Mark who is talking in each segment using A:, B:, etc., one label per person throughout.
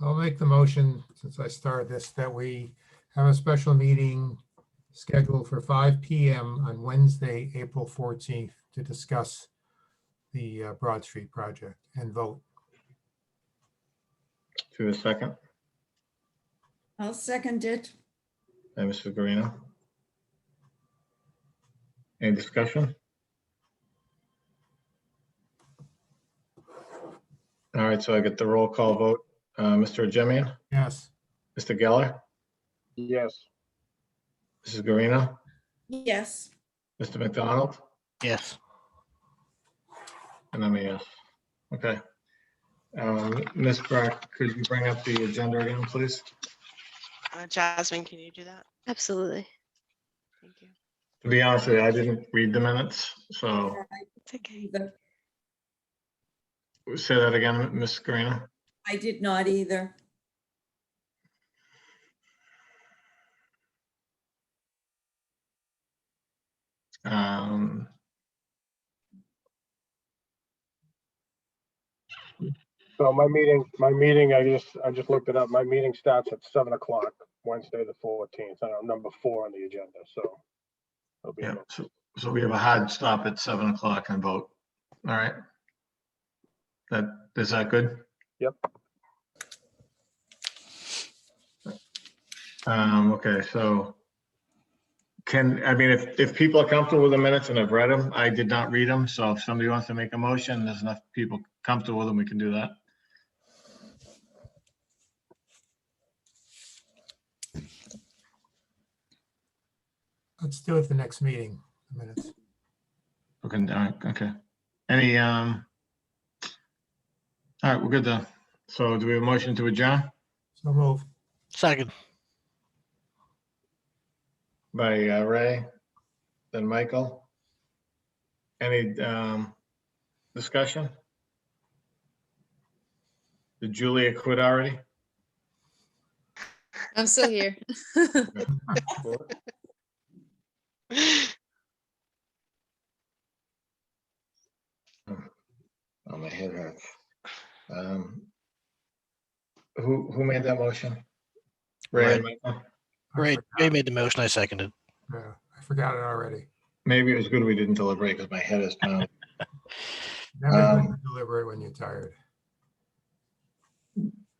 A: I'll make the motion, since I started this, that we have a special meeting scheduled for five PM on Wednesday, April fourteenth, to discuss the uh, Broad Street project and vote.
B: To a second,
C: I'll second it.
B: by Mrs. Garino. Any discussion? All right, so I get the roll call vote. Uh, Mr. Jemian,
A: Yes,
B: Mr. Geller,
D: Yes.
B: Mrs. Garino,
C: Yes,
B: Mr. McDonald,
D: Yes.
B: and I'm a yes. Okay. Um, Ms. Brock, could you bring up the agenda again, please?
E: Uh, Jasmine, can you do that?
F: Absolutely.
E: Thank you.
B: To be honest with you, I didn't read the minutes, so
F: It's okay.
C: either.
B: say that again, Ms. Garino.
C: I did not either.
B: Um.
D: So my meeting, my meeting, I just, I just looked it up. My meeting starts at seven o'clock, Wednesday, the fourteenth. I'm number four on the agenda, so. it'll be
B: Yeah,
D: about-
B: so, so we have a hard stop at seven o'clock and vote. All right. That, is that good?
D: Yep.
B: Um, okay, so can, I mean, if, if people are comfortable with the minutes and I've read them, I did not read them, so if somebody wants to make a motion, there's enough people comfortable with them, we can do that.
A: let's do it the next meeting. the Minutes.
B: Okay, all right, okay. Any, um, all right, we're good then. So do we have a motion to adjourn?
A: So move.
G: Second.
B: by uh, Ray, then Michael. Any um, discussion? Did Julia quit already?
F: I'm still here.
B: Oh, my head hurts. Um, Who, who made that motion? Ray and Michael?
A: I
G: Ray,
A: forgot.
G: Ray made the motion. I seconded.
A: Yeah, I forgot it already.
B: Maybe it was good we didn't deliberate because my head is pounding.
A: Never
B: Um,
A: good to deliberate when you're tired.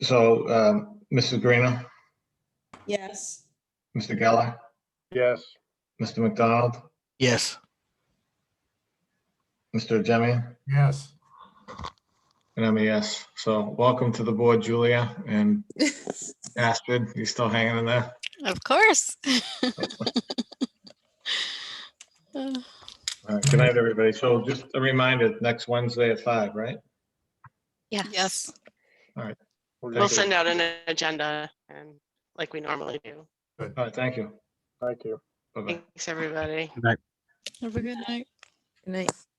B: So um, Mrs. Greeno,
C: Yes.
B: Mr. Geller,
D: Yes.
B: Mr. McDonald,
G: Yes.
B: Mr. Jemian?
A: Yes,
B: And I'm a yes. So welcome to the board, Julia and Astrid. You still hanging in there?
F: Of course. Uh,
B: All right. Good night, everybody. So just a reminder, next Wednesday at five, right?
F: Yeah.
E: Yes,
D: We're
E: we'll
D: good.
E: send out an agenda and like we normally do.
B: All right, thank you.
D: Thank you.
B: Bye-bye.
E: Thanks, everybody.
F: Have a good night. Good night.